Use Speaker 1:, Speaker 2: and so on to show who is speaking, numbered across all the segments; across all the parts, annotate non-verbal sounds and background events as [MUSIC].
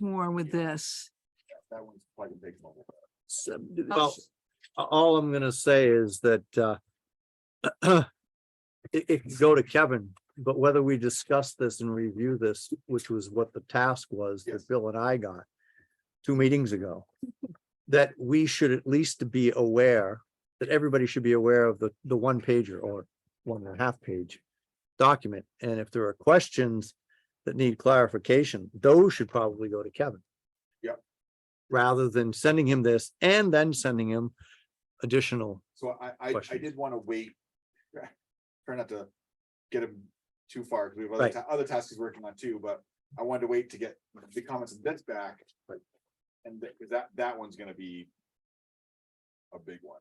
Speaker 1: more with this.
Speaker 2: That one's quite a big one.
Speaker 1: subdivision.
Speaker 3: Well, a- all I'm gonna say is that, uh. [CLEARS THROAT] It, it can go to Kevin, but whether we discuss this and review this, which was what the task was
Speaker 2: Yes.
Speaker 3: that Bill and I got. Two meetings ago, that we should at least be aware, that everybody should be aware of the, the one pager or one and a half page. Document, and if there are questions that need clarification, those should probably go to Kevin rather than sending him this and then sending him additional.
Speaker 2: So I, I, I
Speaker 3: Questions?
Speaker 2: did want to wait. [LAUGHS] Try not to get him too far, because we have
Speaker 3: Right.
Speaker 2: other, ta- other tasks he's working on too, but I wanted to wait to get the comments and bits back, but. And that, 'cause that, that one's gonna be. A big one,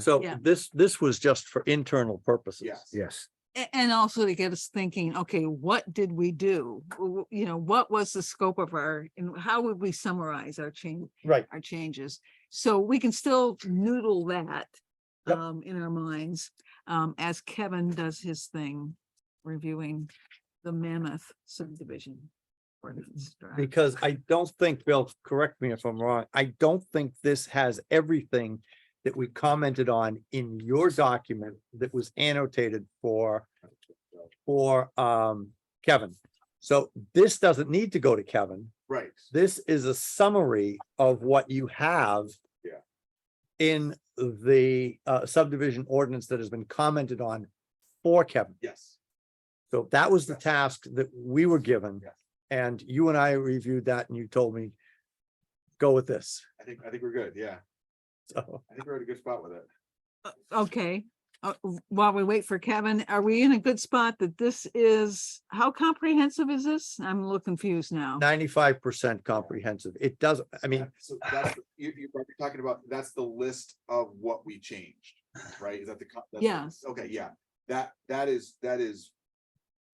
Speaker 3: So
Speaker 1: Yeah.
Speaker 3: this, this was just for internal purposes.
Speaker 2: yes.
Speaker 4: Yes,
Speaker 1: A- And also to get us thinking, okay, what did we do? W- You know, what was the scope of our, and how would we summarize our change,
Speaker 3: Right.
Speaker 1: our changes? So we can still noodle that
Speaker 3: Yep.
Speaker 1: um, in our minds, um, as Kevin does his thing, reviewing the mammoth subdivision. ordinance draft.
Speaker 3: Because I don't think, Bill, correct me if I'm wrong, I don't think this has everything that we commented on in your document that was annotated for, for, um, Kevin. So this doesn't need to go to Kevin.
Speaker 2: Right,
Speaker 3: This is a summary of what you have.
Speaker 2: Yeah.
Speaker 3: In the uh, subdivision ordinance that has been commented on for Kevin.
Speaker 2: yes,
Speaker 3: So that was the
Speaker 2: Yes.
Speaker 3: task that we were given.
Speaker 2: Yes.
Speaker 3: And you and I reviewed that and you told me, go with this.
Speaker 2: I think, I think we're good, yeah,
Speaker 3: So
Speaker 2: I think we're at a good spot with it.
Speaker 1: Uh, Okay, uh, w- while we wait for Kevin, are we in a good spot that this is, how comprehensive is this? I'm a little confused now.
Speaker 3: ninety-five percent comprehensive. It does, I mean,
Speaker 2: So that's, the- you, you- you're talking about, that's the list of what we changed, right? Is that the? co- that's the-
Speaker 1: Yes.
Speaker 2: Okay, yeah, that, that is, that is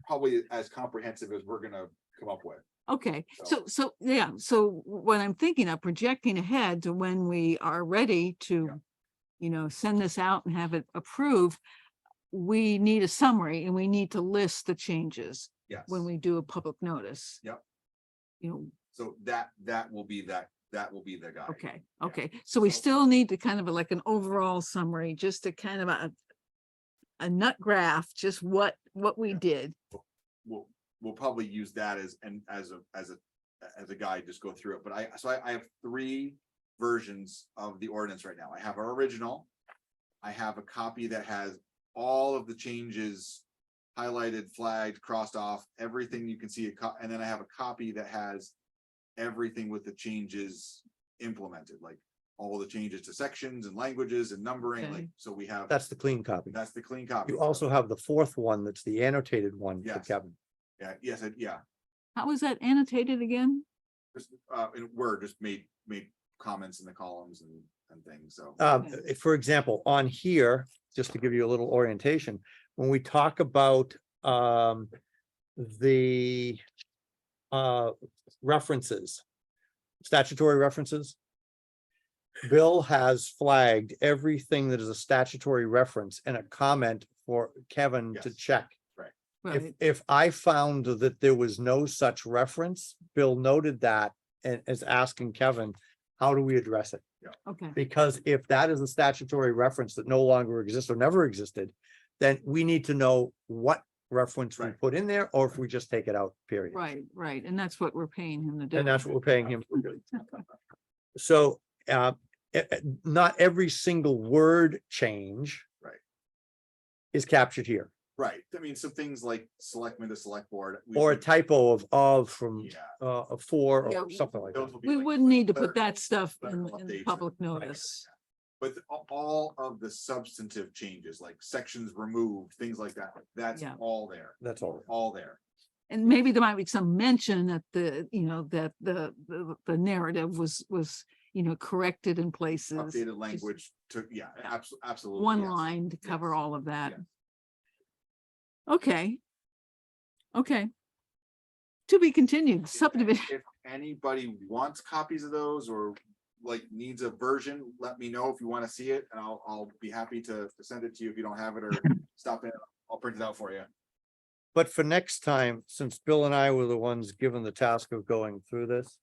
Speaker 2: probably as comprehensive as we're gonna come up with.
Speaker 1: Okay, so,
Speaker 2: So-
Speaker 1: so, yeah, so what I'm thinking of projecting ahead to when we are ready to, you know, send this out and have it approved, we need a summary and we need to list the changes
Speaker 2: Yes.
Speaker 1: when we do a public notice.
Speaker 2: Yep.
Speaker 1: You know,
Speaker 2: So that, that will be that, that will be the guy.
Speaker 1: Okay,
Speaker 2: Yeah.
Speaker 1: okay, so we
Speaker 2: So-
Speaker 1: still need to kind of like an overall summary, just to kind of a. A nut graph, just what, what we
Speaker 2: Yeah.
Speaker 1: did,
Speaker 2: We'll, we'll probably use that as, and as a, as a, as a guide, just go through it, but I, so I, I have three versions of the ordinance right now. I have our original. I have a copy that has all of the changes highlighted, flagged, crossed off, everything you can see, a co- and then I have a copy that has everything with the changes implemented, like all the changes to sections and languages and numbering, like,
Speaker 1: Okay.
Speaker 2: so we have,
Speaker 3: that's the clean copy.
Speaker 2: that's the clean copy.
Speaker 3: You also have the fourth one that's the annotated one for
Speaker 2: Yes.
Speaker 3: Kevin.
Speaker 2: Yeah, yes, I- yeah,
Speaker 1: how was that annotated again?
Speaker 2: just, uh, in Word, just made, made comments in the columns and, and things, so.
Speaker 3: Um,
Speaker 1: Yeah.
Speaker 3: if- for example, on here, just to give you a little orientation, when we talk about, um, the, uh, references, statutory references. Bill has flagged everything that is a statutory reference and a comment for Kevin to
Speaker 2: Yes.
Speaker 3: check. If,
Speaker 1: Right,
Speaker 3: if I found that there was no such reference, Bill noted that and is asking Kevin, how do we address it?
Speaker 1: okay,
Speaker 3: Because if that is a statutory reference that no longer exists or never existed, then we need to know what reference we
Speaker 2: Right.
Speaker 3: put in there, or if we just take it out, period.
Speaker 1: right, right, and that's what we're paying him to do.
Speaker 3: And that's what we're paying him. for doing. So, uh, e- e- not every single word change.
Speaker 2: Right.
Speaker 3: Is captured here,
Speaker 2: [LAUGHS] Right, I mean, some things like selectmen to select board. we-
Speaker 3: or a
Speaker 2: we-
Speaker 3: typo of, of from,
Speaker 2: Yeah.
Speaker 3: uh, a for
Speaker 1: Yeah,
Speaker 3: or
Speaker 1: we-
Speaker 3: something like that.
Speaker 2: those will be
Speaker 1: We
Speaker 2: like
Speaker 1: wouldn't need to put
Speaker 2: clerical-
Speaker 1: that stuff in,
Speaker 2: clerical
Speaker 1: in
Speaker 2: updates
Speaker 1: the
Speaker 2: and-
Speaker 1: public
Speaker 2: Right,
Speaker 1: notice.
Speaker 2: But a- all of the substantive changes, like sections removed, things like that, that's
Speaker 1: Yeah.
Speaker 2: all there,
Speaker 3: That's all.
Speaker 2: all there.
Speaker 1: And maybe there might be some mention that the, you know, that the, the, the narrative was, was, you know, corrected in places.
Speaker 2: Updated language took, yeah, abso- absolutely.
Speaker 1: one
Speaker 2: yes.
Speaker 1: line to cover
Speaker 2: yes,
Speaker 1: all of that. Okay. Okay. To be continued [LAUGHS]
Speaker 2: If-
Speaker 1: subdivision.
Speaker 2: If anybody wants copies of those or like needs a version, let me know if you want to see it and I'll, I'll be happy to to send it to you if you don't have it or stop in, I'll print it out for you.
Speaker 3: But for next time, since Bill and I were the ones given the task of going through this,